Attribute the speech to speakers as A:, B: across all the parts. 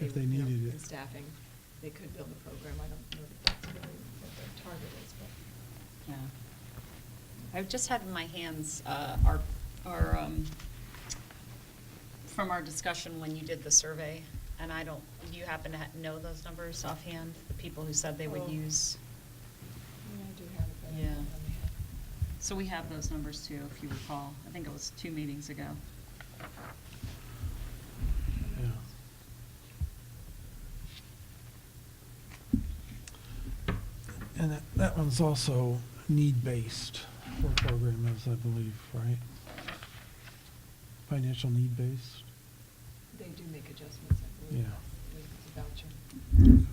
A: if
B: they,
A: they
B: you know,
A: needed it.
B: in staffing, they could build a program. I don't know that that's really what their target is, but.
C: Yeah. I've just had in my hands uh, our, our, um, from our discussion when you did the survey, and I don't, do you happen to ha- know those numbers offhand, the people who said they would
B: Oh.
C: use?
B: Yeah, I do have it, but I don't
C: Yeah.
B: know if I have it.
C: So we have those numbers too, if you recall. I think it was two meetings ago.
A: Yeah. And that, that one's also need-based for program, as I believe, right? Financial need-based?
B: They do make adjustments, I believe.
A: Yeah.
B: I believe It's a voucher.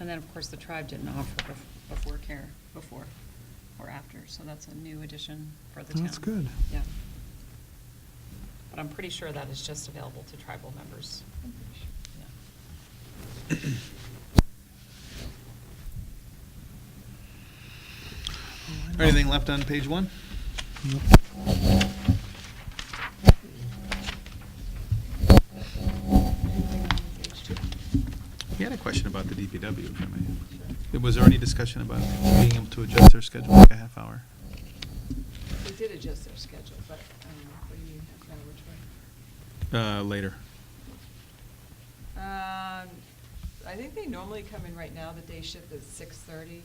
C: And then, of course, the tribe didn't offer bef- before care, before or after, so that's a new addition for the town.
A: That's good.
C: Yeah. But I'm pretty sure that is just available to tribal members.
B: I'm pretty sure.
C: Yeah.
D: Anything left on page one?
A: Yep.
B: Page two.
D: He had a question about the DPW, if I may. Was there any discussion about being able to adjust their schedule like a half hour?
B: They did adjust their schedule, but I don't know, what do you mean, half an hour, which way?
D: Uh, later.
B: Um, I think they normally come in right now, the day shift is six thirty.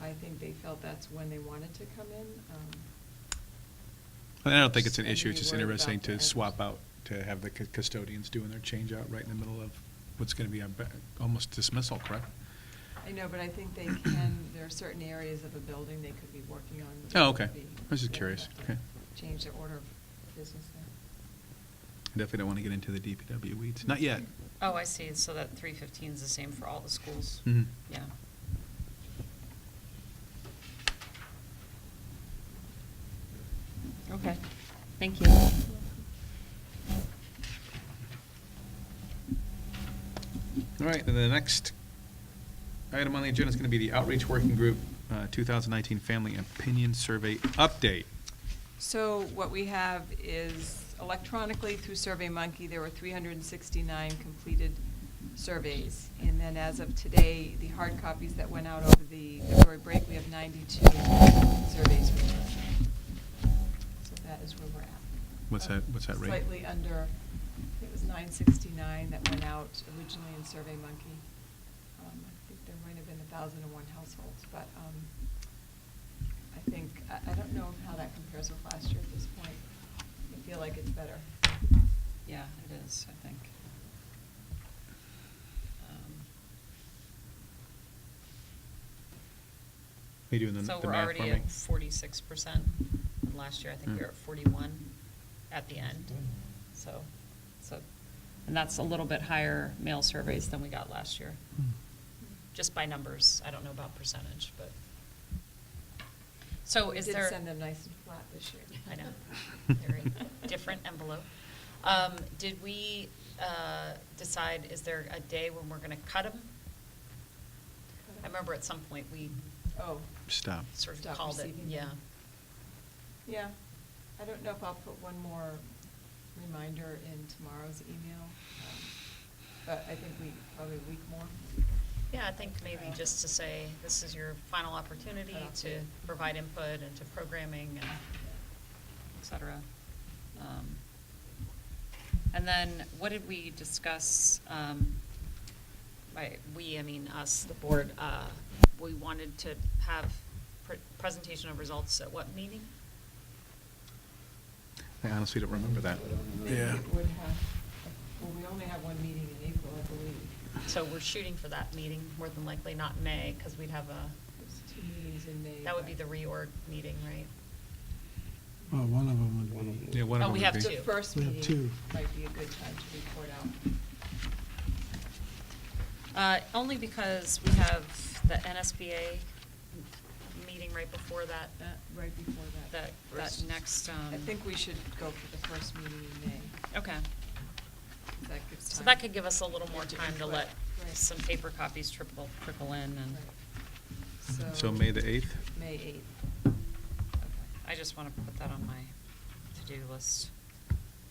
B: I think they felt that's when they wanted to come in. Um,
D: I don't think it's an
B: And
D: issue, it's
B: you
D: just
B: worry about
D: interesting
B: the
D: to
B: hours.
D: swap out, to have the cu- custodians doing their change out right in the middle of what's gonna be a ba- almost dismissal, correct?
B: I know, but I think they can, there are certain areas of a building they could be working on. that
D: Oh,
B: would
D: okay.
B: be-
D: I was just
B: they would
D: curious.
B: have to
D: Okay.
B: Change their order of business there.
D: I Definitely don't wanna get into the DPW weeds, not yet.
C: Oh, I see, so that three fifteen is the same for all the schools?
D: Mhm.
C: Yeah. Okay, thank you.
D: All right, and the next item on the agenda is gonna be the outreach working group, uh, two thousand nineteen family opinion survey update.
B: So what we have is electronically through SurveyMonkey, there were 369 completed surveys. And then as of today, the hard copies that went out over the February break, we have 92 surveys returned. So that is where we're at.
D: What's that, what's that rate?
B: Slightly under, I think it was 969 that went out originally in SurveyMonkey. Um, I think there might have been 1,001 households, but um, I think, I I don't know how that compares with last year at this point. I feel like it's better.
C: Yeah, it is, I think. Um,
D: Are you doing the the
C: Um, So
D: math for
C: we're
D: me?
C: already at forty-six percent, and last year I think we were at
D: Mm.
C: forty-one at the end, so, so, and that's a little bit higher male surveys than we got last year,
D: Mm-hmm.
A: Hmm.
C: just by numbers, I don't know about percentage, but. So
B: We
C: is there?
B: Did send them nice and flat this year.
C: I know. They're in a different envelope. Um, Did we uh, decide, is there a day when we're going to cut them? I remember at some point, we
B: Oh,
D: Stop.
C: sort of
B: Stop
C: called it,
B: receiving
C: yeah.
B: them. yeah. I don't know if I'll put one more reminder in tomorrow's email, um, but I think we, probably a week more.
C: Yeah, I think maybe just to say, this is your final opportunity
B: Cut off
C: to
B: date.
C: provide input into programming and et cetera. Um, And then, what did we discuss, um, by, we, I mean us, the board, uh, we wanted to have pr- presentation of results at what meeting?
D: I honestly don't remember that.
C: Oh,
B: I think it would have, well, we only have one meeting in April, I believe.
C: So we're shooting for that meeting, more than likely not May, because we'd have a,
B: There's two meetings in May.
C: that would be the
B: but-
C: reorg meeting, right?
A: Well, Oh, one of them would be.
D: Yeah, one
C: Oh,
D: of them
C: we
D: would
C: have
D: be-
C: two.
B: The first
A: We have two.
B: meeting might be a good time to report out.
C: Uh, Only because we have the NSBA meeting right before that,
B: Uh, Right before that.
C: that, that
B: first-
C: next, um.
B: I think we should go for the first meeting in May.
C: Okay,
B: That gives
C: so
B: time.
C: that could give us a little more
B: to
C: time to
B: input.
C: let
B: Right.
C: some paper copies trickle, trickle in, and
B: Right.
D: So May the 8th?
B: May 8th.
C: I just want to put that on my to-do list.